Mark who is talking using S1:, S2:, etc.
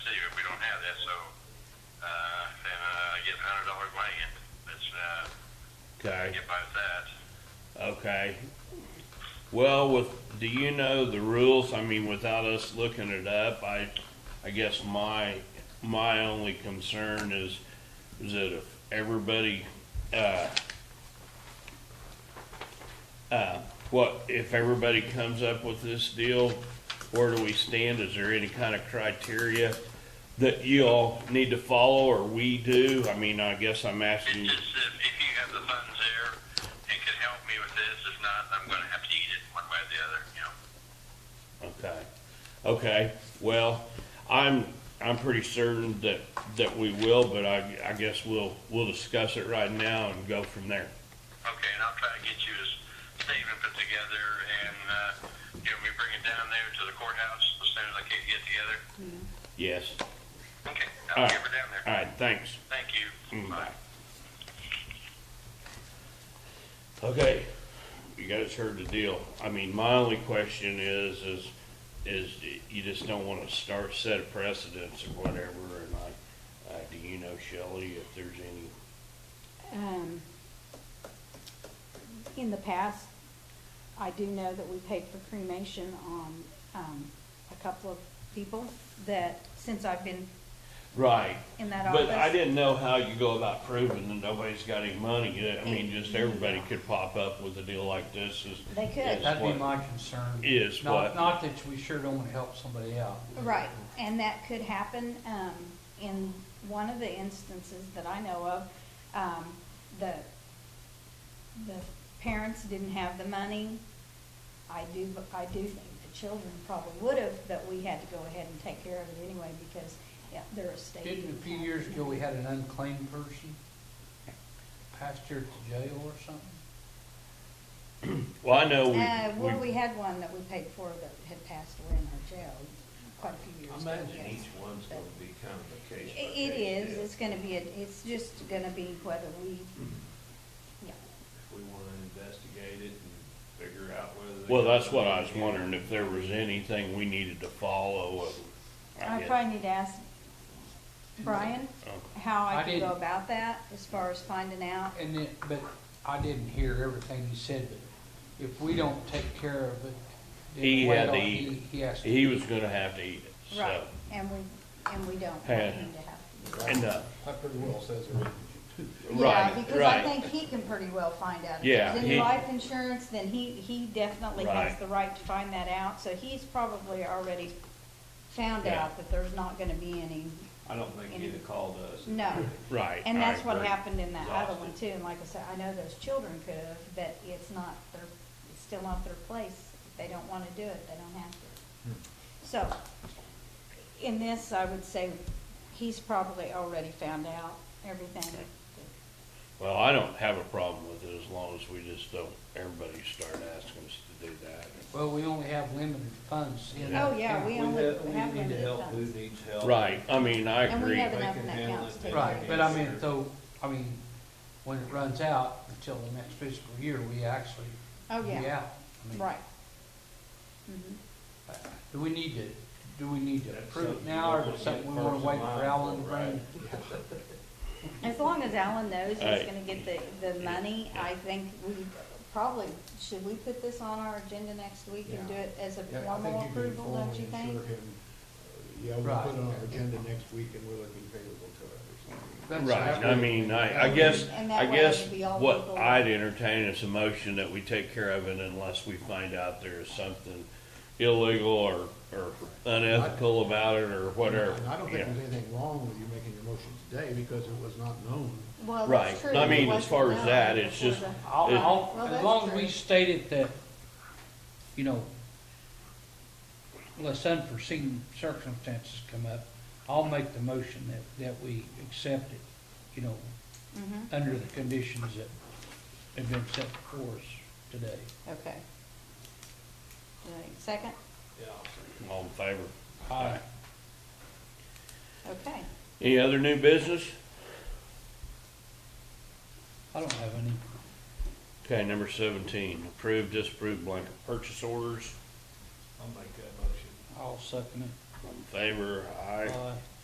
S1: if we don't have that, so, uh, then, uh, get a hundred dollars land, that's, uh,
S2: Okay,
S1: get by with that.
S2: okay. Well, with, do you know the rules? I mean, without us looking it up, I, I guess my, my only concern is, is that if everybody, uh, uh, what, if everybody comes up with this deal, where do we stand? Is there any kind of criteria that you all need to follow or we do? I mean, I guess I'm asking
S1: It's
S2: you.
S1: just, if, if you have the funds there, it could help me with this, if not, I'm gonna have to eat it one way or the other, you know?
S2: Okay, okay, well, I'm, I'm pretty certain that, that we will, but I, I guess we'll, we'll discuss it right now and go from there.
S1: Okay, and I'll try to get you a statement put together and, uh, you know, we bring it down there to the courthouse as soon as I can get together.
S2: Yes,
S1: Okay, I'll
S2: All right.
S1: get her down there.
S2: all right, thanks.
S1: Thank you.
S2: Mm,
S1: Bye.
S2: bye. Okay, you guys heard the deal. I mean, my only question is, is, is you just don't wanna start, set a precedence or whatever, and I, uh, do you know, Shelley, if there's any
S3: Um, In the past, I do know that we paid for cremation on um, a couple of people that, since I've been
S2: Right.
S3: in that
S2: But I
S3: office.
S2: didn't know how you go about proving that nobody's got any money. I mean, just everybody could pop up with a deal like this is.
S3: They could.
S2: is
S4: That'd be
S2: what-
S4: my concern.
S2: Is
S4: Not-
S2: what-
S4: Not that we sure don't want to help somebody out.
S3: Right, and that could happen um, in one of the instances that I know of. um, The, the parents didn't have the money. I do, I do think the children probably would have, but we had to go ahead and take care of it anyway because yeah, they're a state.
S4: Didn't a few years ago, we had an unclaimed person passed here to jail or something?
S2: Well, I know
S3: Uh, well,
S2: we,
S3: we had one that we paid for that had passed away in our jail quite a few
S5: I
S3: years ago.
S5: imagine
S3: yes.
S5: each one's gonna be kind of a case
S3: I-
S5: by
S3: It
S5: case
S3: is,
S5: deal.
S3: it's gonna be, a- it's just gonna be whether we, yeah.
S5: If we wanna investigate it and figure out whether. they
S2: well,
S5: got
S2: that's what I was
S5: money.
S2: wondering, if there was anything we needed to follow. and I
S3: I
S2: guess-
S3: probably need to ask Brian
S2: Okay.
S3: how I
S4: I
S3: can go
S4: didn't-
S3: about that as far as finding out.
S4: And then, but I didn't hear everything he said, but if we don't take care of it. then
S2: He
S4: wait
S2: had to
S4: on-
S2: eat it.
S4: He has to.
S2: He was gonna have to eat it,
S3: Right,
S2: so.
S3: and we, and we don't want
S2: Had-
S3: him to have.
S2: And, uh,
S6: That pretty well says it.
S3: Yeah,
S2: right,
S3: because I
S2: right.
S3: think he can pretty well find out. If
S2: Yeah,
S3: it's
S2: he-
S3: in life insurance, then he, he definitely has
S2: Right.
S3: the right to find that out. So he's probably already found
S2: Yeah.
S3: out that there's not gonna be any,
S5: I don't think he'd have called us.
S3: no.
S2: Right.
S3: And that's
S2: I
S3: what
S2: agree.
S3: happened in that other one too.
S5: Exhausted.
S3: And like I said, I know those children could have, but it's not their, it's still not their place. If they don't wanna do it, they don't have to.
S2: Hmm.
S3: So, in this, I would say he's probably already found out everything.
S2: Well, I don't have a problem with it as long as we just don't, everybody start asking us to do that.
S4: Well, we only have limited funds in.
S3: Oh, yeah, we
S5: We
S3: only
S5: have, we need
S3: have
S5: to
S3: limited
S5: help who
S3: funds.
S5: needs help.
S2: Right, I mean, I
S3: And we
S2: agree.
S3: have
S5: They
S3: enough
S5: can
S3: in that
S5: handle it,
S3: house to-
S5: they
S4: Right,
S5: can
S4: but I mean,
S5: answer.
S4: though, I mean, when it runs out until the next fiscal year, we actually.
S3: Oh,
S4: be
S3: yeah,
S4: out. I mean,
S3: right. Mhm.
S4: Do we need to, do we need to
S5: That's
S4: approve it
S5: something
S4: now, or
S5: we'll
S4: is it something we wanna
S5: get
S4: wait
S5: first in
S4: for
S5: line
S4: Alan to
S5: for, right?
S4: bring?
S3: As long as Alan knows he's
S2: Right.
S3: gonna get the, the money, I think we probably, should we put this on our agenda next week and do
S6: Yeah.
S3: it as a
S6: Yeah, I
S3: formal
S6: think you can
S3: approval, don't you
S6: formally
S3: think?
S6: assure him, uh, Yeah, we'll
S4: Right.
S6: put it on our agenda next week and we'll be favorable to it or something.
S4: That's-
S2: Right, I mean, I, I guess,
S3: And that
S2: I
S3: way
S2: guess
S3: it'd be all
S2: what
S3: legal.
S2: I'd entertain is a motion that we take care of it unless we find out there is something illegal or, or unethical about it or whatever.
S6: And I don't
S2: Yeah.
S6: think there's anything wrong with you making your motion today because it was not known.
S3: Well,
S2: Right,
S3: that's true.
S2: I
S3: It
S2: mean, as
S3: wasn't
S2: far as
S3: known
S2: that, it's
S3: before
S2: just-
S3: the-
S4: I'll, I'll-
S3: Well,
S4: as
S3: that's
S4: long as
S3: true.
S4: we stated that, you know, unless unforeseen circumstances come up, I'll make the motion that, that we accept it, you know,
S3: Mhm.
S4: under the conditions that have been set for us today.
S3: Okay. All right, Second,
S5: Yeah, I'll see.
S2: All in favor?
S4: Aye.
S3: okay.
S2: Any other new business?
S4: I don't have any.
S2: Okay, number seventeen, approve, disapprove blanket purchase orders.
S5: I'll make that motion.
S4: I'll second it.
S2: All in favor? Aye.
S4: Aye.